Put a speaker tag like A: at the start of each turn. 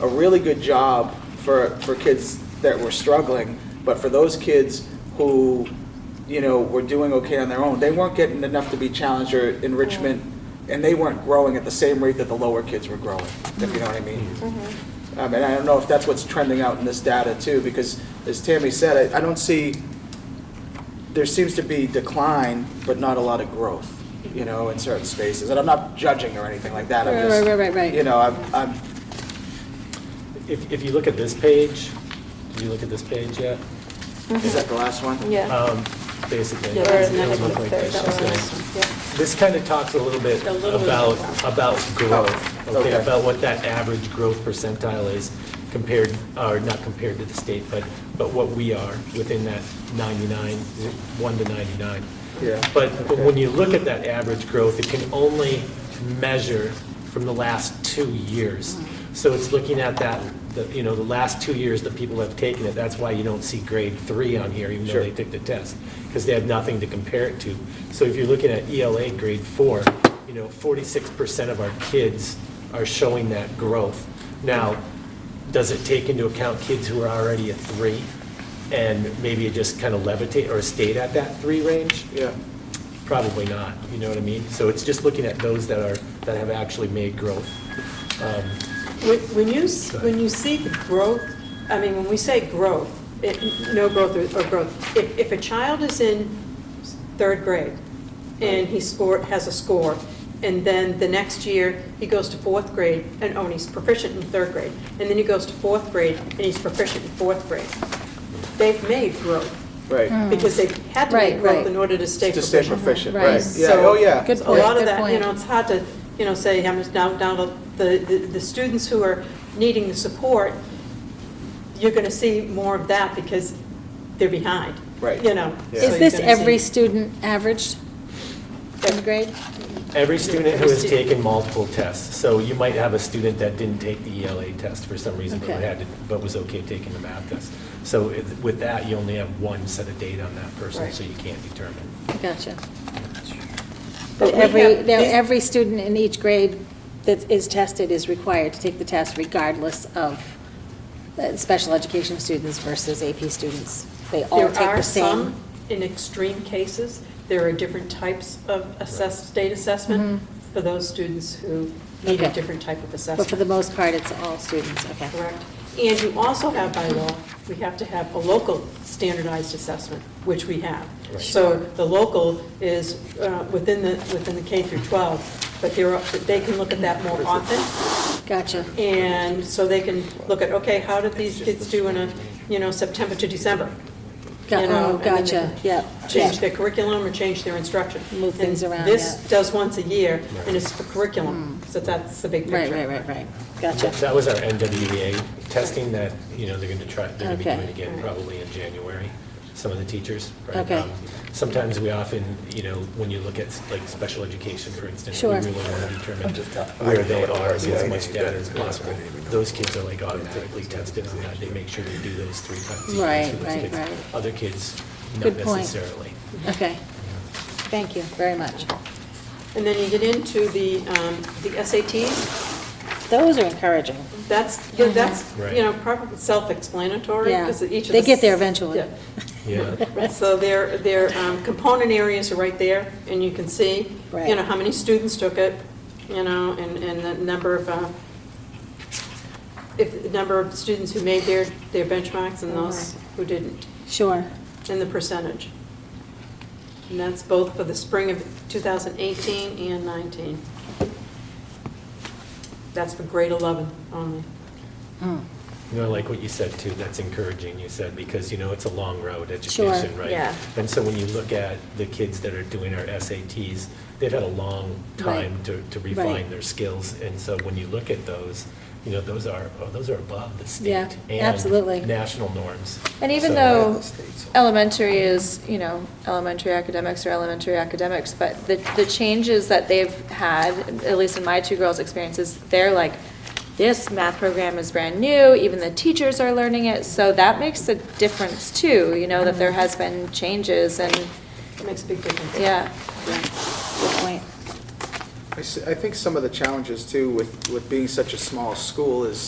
A: a really good job for, for kids that were struggling, but for those kids who, you know, were doing okay on their own, they weren't getting enough to be challenged or enrichment, and they weren't growing at the same rate that the lower kids were growing, if you know what I mean.
B: Mm-hmm.
A: Um, and I don't know if that's what's trending out in this data too, because as Tammy said, I, I don't see, there seems to be decline, but not a lot of growth, you know, in certain spaces. And I'm not judging or anything like that, I'm
B: Right,
A: just.
B: right, right, right, right.
A: You know, I'm, I'm,
C: If, if you look at this page, did you look at this page yet?
A: is that the last one?
D: Yeah.
C: Um, Basically.
D: Yeah,
C: it'll look
D: there's another
C: like
D: one there,
C: this,
D: that one,
C: so-
D: yeah.
C: This kind of talks a little bit
D: A little bit
C: about,
D: about-
C: about growth,
A: Oh, okay.
C: okay, about what that average growth percentile is compared, or not compared to the state, but, but what we are within that 99, 1 to 99.
A: Yeah,
C: But, but
A: okay.
C: when you look at that average growth, it can only measure from the last two years. So it's looking at that, the- you know, the last two years that people have taken it, that's why you don't see grade three on here, even though
A: Sure.
C: they took the test, because they have nothing to compare it to. So if you're looking at ELA grade four, you know, 46% of our kids are showing that growth. Now, does it take into account kids who are already a three, and maybe it just kind of levitate, or stayed at that three range?
A: Yeah,
C: Probably not, you know what I mean? So it's just looking at those that are, that have actually made growth. Um,
D: When when you, s- when you see the growth, I mean, when we say growth, it, no growth or- or growth, if, if a child is in third grade and he scored, has a score, and then the next year he goes to fourth grade and, oh, and he's proficient in third grade, and then he goes to fourth grade and he's proficient in fourth grade, they've made growth,
A: right.
D: because they had to
B: Right,
D: make growth
B: right.
D: in order to Mm-hmm. stay
A: To stay
D: proficient.
A: proficient,
B: Right.
A: right. Yeah,
D: So-
A: oh, yeah.
B: Good
D: So
B: point,
D: A lot of
B: good
D: that, you
B: point.
D: know, it's hard to, you know, say, I'm just down, down to the, the, the students who are needing the support, you're gonna see more of that because they're behind.
A: Right.
D: You know.
A: Yeah.
D: so
B: Is
D: you're
B: this
D: gonna see-
B: every student averaged in grade?
C: Every student who
D: Every
C: has
D: student.
C: taken multiple tests, so you might have a student that didn't take the ELA test for some reason, but
B: Okay.
C: had, to- but was okay taking the math test. So it- with that, you only have one set of data on that person,
D: Right.
C: so you can't determine.
B: Gotcha.
D: But
B: But
D: we
B: every,
D: have-
B: now,
D: these-
B: every student in each grade that is tested is required to take the test regardless of uh, special education students versus AP students. They all
D: There
B: take
D: are
B: the same.
D: some, in extreme cases, there are different types of assess, state assessment for those students who need a
B: Mm-hmm. Okay.
D: different type of assessment.
B: But for the most part, it's all students, okay.
D: Correct. And you also have by law, we have to have a local standardized assessment, which we have.
C: Right.
D: So the local is uh, within the, within the K through 12, but there are, but they can look at that more often.
B: Gotcha.
D: And so they can look at, okay, how did these kids do in a, you know, September to December?
B: Go-
D: You know,
B: oh,
D: and then they
B: gotcha,
D: can
B: yeah,
D: Change
B: yeah.
D: their curriculum or change their instruction.
B: Move things
D: And
B: around,
D: This
B: yeah. Hmm.
D: does once a year, and it's for curriculum, so that's the big
B: Right,
D: picture.
B: right, right, right. Gotcha.
C: That was our NWEA testing that, you know, they're going to try, they're going to be
B: Okay.
C: doing again probably in January, some of the teachers. right?
B: Okay.
C: Um, Sometimes we often, you know, when you look at like special education, for instance, we
B: Sure.
C: really want to determine where they are, and get as much data as possible. Those kids are like automatically tested on that, they make sure they do those three times. each
B: Right,
C: for those
B: right,
C: kids.
B: right.
C: Other kids, not
B: Good point.
C: necessarily.
B: Okay. Thank you very much.
D: And then you get into the, um, the SATs,
B: Those are encouraging.
D: That's, yeah, that's,
C: Right.
D: you know, probably self-explanatory,
B: Mm-hmm. Yeah.
D: because each of the...
B: They get there
D: s-
B: eventually.
D: yeah.
C: Yeah.
D: Right, So their, their um, component areas are right there, and you can see, you
B: Right.
D: know, how many students took it, you know, and, and the number of, uh, if, the number of students who made their, their benchmarks and those who didn't,
B: Sure.
D: and the percentage. And that's both for the spring of 2018 and 19. That's for grade 11 only.
C: Hmm. You know, like what you said too, that's encouraging, you said, because, you know, it's a long road,
B: Sure.
C: education, right?
D: Yeah.
C: And so when you look at the kids that are doing our SATs, they've had a long time
B: Right.
C: to to
B: Right.
C: refine their skills. And so when you look at those, you know, those are, oh, those are above the state.
B: Yeah, absolutely.
C: And national norms.
E: And even
C: So-
E: though elementary is, you know, elementary academics are elementary academics, but the, the changes that they've had, at least in my two girls' experiences, they're like, this math program is brand new, even the teachers are learning it, so that makes a difference too, you know, that there
D: Mm-hmm.
E: has been changes and,
D: It makes a big difference.
E: yeah.
B: Yeah. Good point.
A: I s- I think some of the challenges too with, with being such a small school is